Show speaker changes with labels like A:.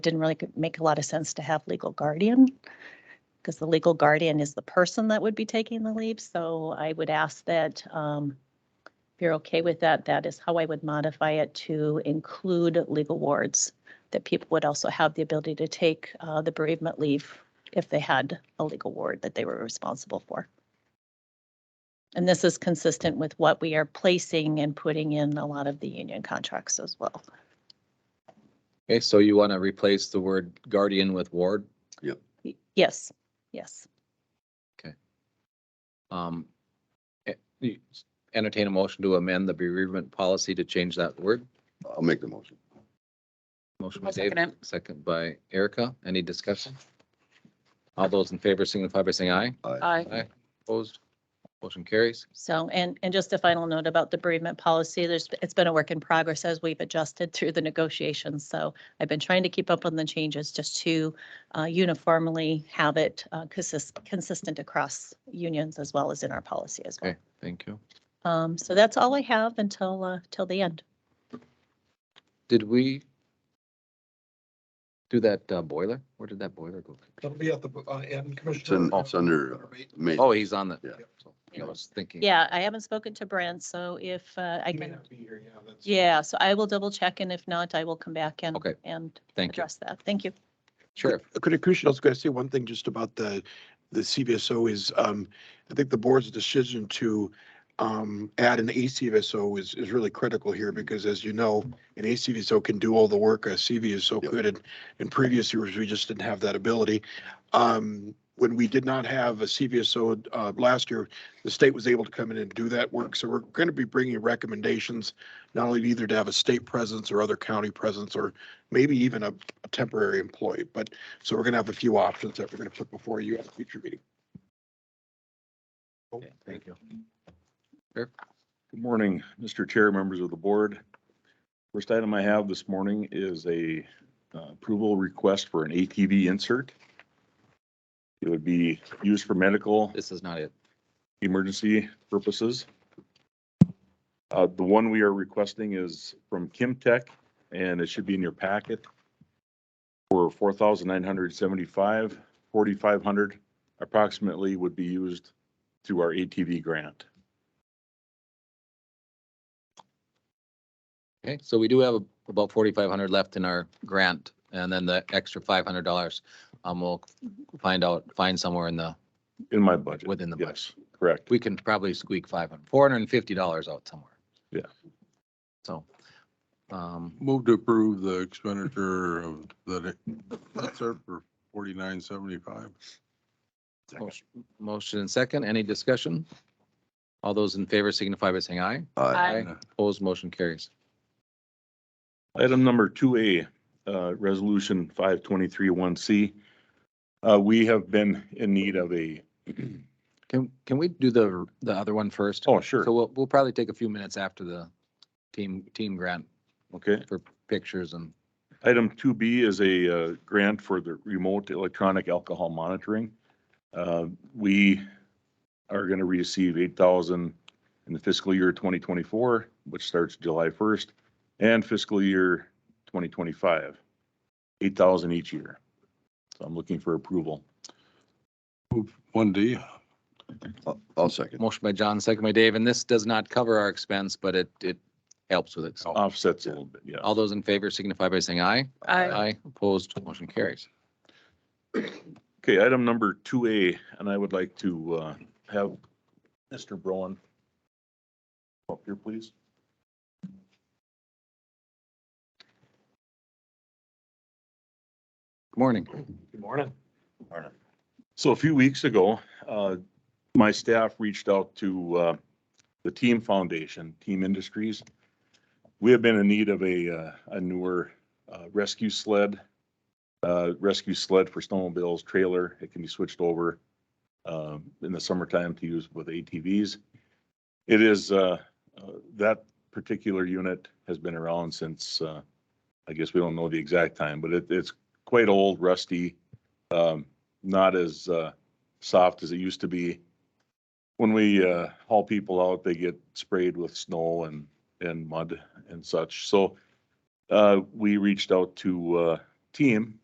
A: didn't really make a lot of sense to have legal guardian because the legal guardian is the person that would be taking the leave. So I would ask that um, if you're okay with that, that is how I would modify it to include legal wards, that people would also have the ability to take uh, the bereavement leave if they had a legal ward that they were responsible for. And this is consistent with what we are placing and putting in a lot of the union contracts as well.
B: Okay, so you want to replace the word guardian with ward?
A: Y- Yes, yes.
B: Um, e- you Entertain a motion to amend the bereavement policy to change that word.
C: I'll make the motion.
B: Motion by
D: I'll
B: Dave,
D: second it.
B: second by Erica. Any discussion? All those in favor signify by saying aye.
D: Aye.
B: Aye. Opposed? Motion carries.
A: So, and, and just a final note about the bereavement policy, there's, it's been a work in progress as we've adjusted through the negotiations. So I've been trying to keep up on the changes just to uh, uniformly have it uh, consis- consistent across unions as well as in our policy as well.
B: Okay, thank you.
A: Um, So that's all I have until, uh, till the end.
B: Did we do that uh, boiler? Where did that boiler go?
E: That'll be at the, uh, and
C: It's in,
E: Commissioner.
F: oh.
C: it's under uh, ma-
B: Oh, he's on the,
C: Yeah.
B: so I was thinking.
A: Yeah, I haven't spoken to Brent, so if uh, I
E: He may
A: can,
E: not be here, yeah, that's-
A: yeah, so I will double check and if not, I will come back and,
B: Okay.
A: and
B: Thank you.
A: address that. Thank you.
B: Sheriff,
F: Could I, Commissioner, I was going to say one thing just about the, the CVSO is, um, I think the board's decision to, um, add an ACVSO is, is really critical here because as you know, an ACVSO can do all the work a CVSO
C: Yep.
F: could. And in previous years, we just didn't have that ability. Um, when we did not have a CVSO, uh, last year, the state was able to come in and do that work. So we're going to be bringing recommendations, not only either to have a state presence or other county presence, or maybe even a a temporary employee. But so we're going to have a few options that we're going to put before you at a future meeting.
B: thank you.
G: Good morning, Mr. Chair, members of the board. First item I have this morning is a uh, approval request for an ATV insert. It would be used for medical
B: This is not it.
G: emergency purposes. Uh, The one we are requesting is from Kim Tech, and it should be in your packet for 4,975, 4,500 approximately would be used through our ATV grant.
B: Okay, so we do have about forty-five hundred left in our grant, and then the extra five hundred dollars, um, we'll find out, find somewhere in the,
G: In my budget.
B: Within the
G: Yes, Correct.
B: we can probably squeak five hundred, four hundred and fifty dollars out somewhere.
G: Yeah.
B: So, um,
H: Move to approve the expenditure of the, that's it for forty-nine seventy-five.
B: motion- motion and second, any discussion? All those in favor signify by saying aye.
C: aye.
D: Aye.
B: Opposed, motion carries.
G: Item number two A, uh, resolution five twenty-three one C. Uh, we have been in need of a,
B: Can, can we do the, the other one first?
G: oh,
B: So
G: sure,
B: we'll, we'll probably take a few minutes after the team, team grant
G: okay.
B: for pictures and,
G: Item two B is a, uh, grant for the remote electronic alcohol monitoring. Uh, we are gonna receive eight thousand in the fiscal year twenty twenty-four, which starts July first, and fiscal year twenty twenty-five. Eight thousand each year. So I'm looking for approval.
H: One D,
C: I'll- I'll second.
B: Motion by John, second by Dave, and this does not cover our expense, but it, it helps with it. So
G: Offsets a little bit, yeah.
B: All those in favor signify by saying aye.
D: Aye.
B: Aye, opposed, motion carries.
G: Okay, item number two A, and I would like to uh, have Mr. Brown up here, please.
B: Good morning.
G: So a few weeks ago, uh, my staff reached out to uh, the Team Foundation, Team Industries. We have been in need of a uh, a newer uh, rescue sled, uh, rescue sled for snowmobiles, trailer. It can be switched over um, in the summertime to use with ATVs. It is, uh, uh, that particular unit has been around since, uh, I guess we don't know the exact time, but it- it's quite old, rusty. um, not as uh, soft as it used to be. When we uh, haul people out, they get sprayed with snow and, and mud and such. So uh, we reached out to uh, team